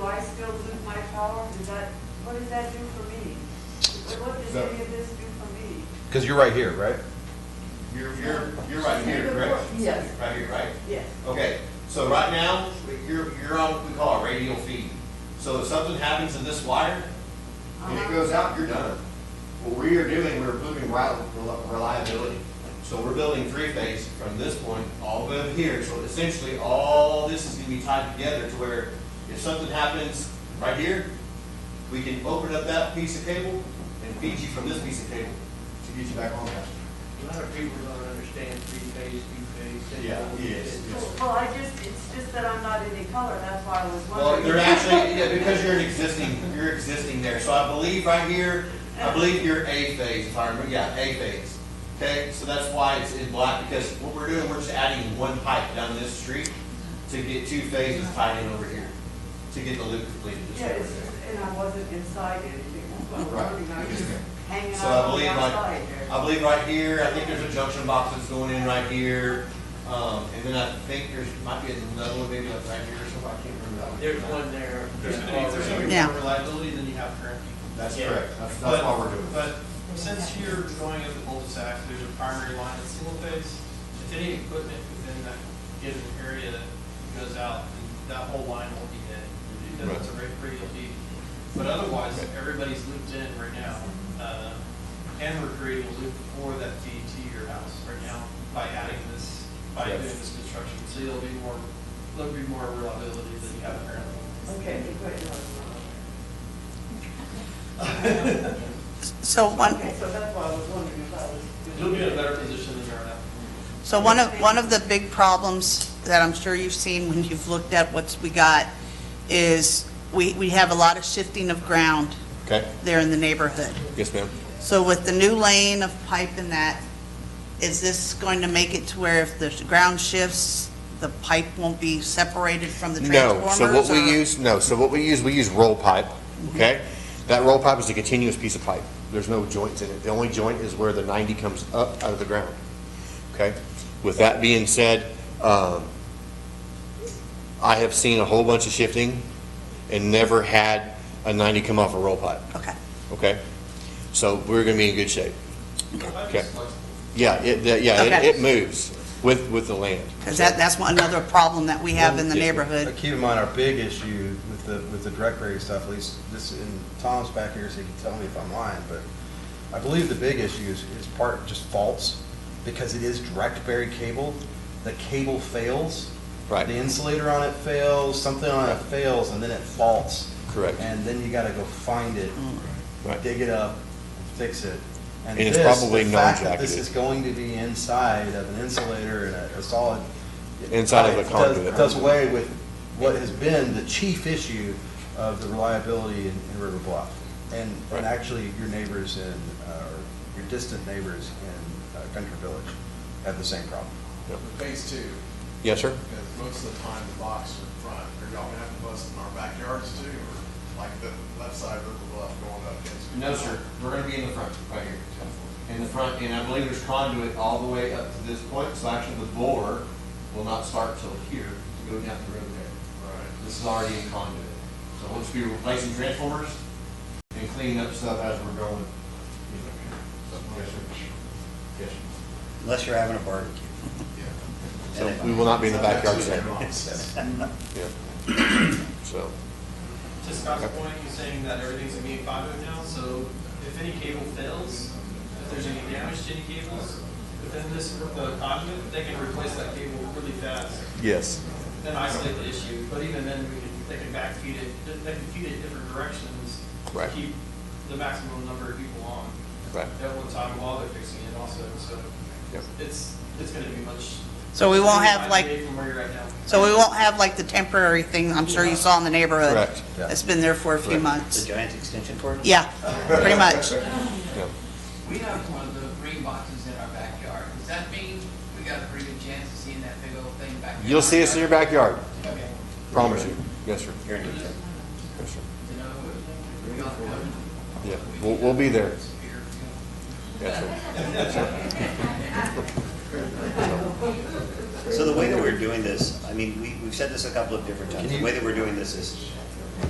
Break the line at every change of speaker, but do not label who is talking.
still lose my power? Does that, what does that do for me? What does any of this do for me?
Because you're right here, right?
You're, you're, you're right here, correct?
Yes.
Right here, right?
Yes.
Okay, so right now, you're, you're on what we call a radial feed. So if something happens in this wire, and it goes out, you're done. What we are doing, we're improving rel- rel- reliability. So we're building three-phase from this point all the way up here. So essentially, all this is gonna be tied together to where if something happens right here, we can open up that piece of cable and feed you from this piece of cable to get you back on that.
A lot of people don't understand three-phase, two-phase. they
Yeah,
don't
yes,
get it.
yes.
Well, I just, it's just that I'm not any color, that's why I was
Well,
wondering.
they're actually, yeah, because you're an existing, you're existing there, so I believe right here, I believe you're A phase, if I remember, yeah, A phase. Okay, so that's why it's in black, because what we're doing, we're just adding one pipe down this street to get two phases tied in over here, to get the loop completed. just
Yeah, it's
over
just,
there.
and I wasn't inside anything, that's what
Right.
I'm wondering, I was hanging
So I
out on the
believe
outside
like,
there.
I believe right here, I think there's a junction box that's going in right here. Um, and then I think there's, might be another one maybe up right here or something, I can't remember that one.
There's one there.
There's, if there's something
Yeah.
more reliability than you have currently.
That's
Yeah.
correct, that's, that's
But-
why we're doing it.
But since you're going as a cul-de-sac, there's a primary line that's single phase. If any equipment within that given area goes out, that whole line will be dead. Because it's a rate radial deed. But otherwise, everybody's looped in right now. Uh, And we're creating a loop for that feed to your house right now by adding this, by doing this construction. So you'll be more, there'll be more reliability than you have currently.
Okay, good.
So one,
Okay, so that's why I was wondering if I was.
You'll be in a better position than you are now.
so one of, one of the big problems that I'm sure you've seen when you've looked at what's we got is we, we have a lot of shifting of ground
Okay,
there in the neighborhood.
yes, ma'am.
So with the new lane of pipe and that, is this going to make it to where if the ground shifts, the pipe won't be separated from the
No,
transformers?
so what we
or-
use, no, so what we use, we use roll pipe, okay? That roll pipe is a continuous piece of pipe. There's no joints in it. The only joint is where the 90 comes up out of the ground, okay? With that being said, um, I have seen a whole bunch of shifting and never had a 90 come off a roll pipe,
Okay.
okay? So we're gonna be in good shape.
Pipe
Okay.
is flexible.
Yeah, it, that- yeah, it-
Okay.
it moves with, with the land.
Because that, that's one- another problem that we have in the
Well,
neighborhood.
uh, Keep in mind, our big issue with the, with the direct rate stuff, at least this, and Tom's back here, so he can tell me if I'm lying, but I believe the big issue is, is part just faults, because it is direct buried cable. The cable fails.
Right.
The insulator on it fails, something on it fails, and then it faults.
Correct.
And then you gotta go find it,
Right.
dig it up, fix it.
And it's
this,
probably
the fact that This
non-jacketed.
is going to be inside of an insulator and a a solid.
Inside of a
It does-
conduit.
Does away with what has been the chief issue of the reliability in in River Bluff. And,
Right.
and actually, your neighbors in, uh, or your distant neighbors in uh, Country Village have the same problem.
Phase two,
Yes, sir?
because most of the time the box are in front, are y'all gonna have to bust in our backyards too, or like the left side of the bluff going up against?
No, sir, we're gonna be in the front, right here. In the front, and I believe there's conduit all the way up to this point, so actually the bore will not start till here to go down the road there.
Right.
This is already in conduit. So once we replacing transformers and cleaning up stuff as we're going. Yes, sir. Yes, sir.
Unless you're having a barbecue.
So we will not be in the backyard
That's
today.
what it is.
So,
To Scott's point, he's saying that everything's gonna be in conduit now, so if any cable fails, if there's any damage to any cables within this uh, conduit, they can replace that cable really fast,
yes.
then isolate the issue, but even then, we can, they can backfeed it, they can feed it different directions. to
Right.
Keep the maximum number of people on
Right.
at one time while they're fixing it also, so
Yep.
it's, it's gonna be much.
So we won't have, like-
From where you're at now.
So we won't have like the temporary thing I'm sure you saw in the neighborhood.
Correct.
Yeah.
It's been there for a few
Correct.
The
months.
giant extension cord?
Yeah, pretty much.
Yeah.
We have one of the green boxes in our backyard. Does that mean we got a pretty good chance of seeing that big old thing back there?
You'll see us in your backyard,
Okay.
promise you. Yes, sir.
You're in good shape.
Yes, sir.
You know, we all come
Yeah, we'll, we'll be there.
here.
Yes, sir.
So the way that we're doing this, I mean, we, we've said this a couple of different times, the way that we're doing this is,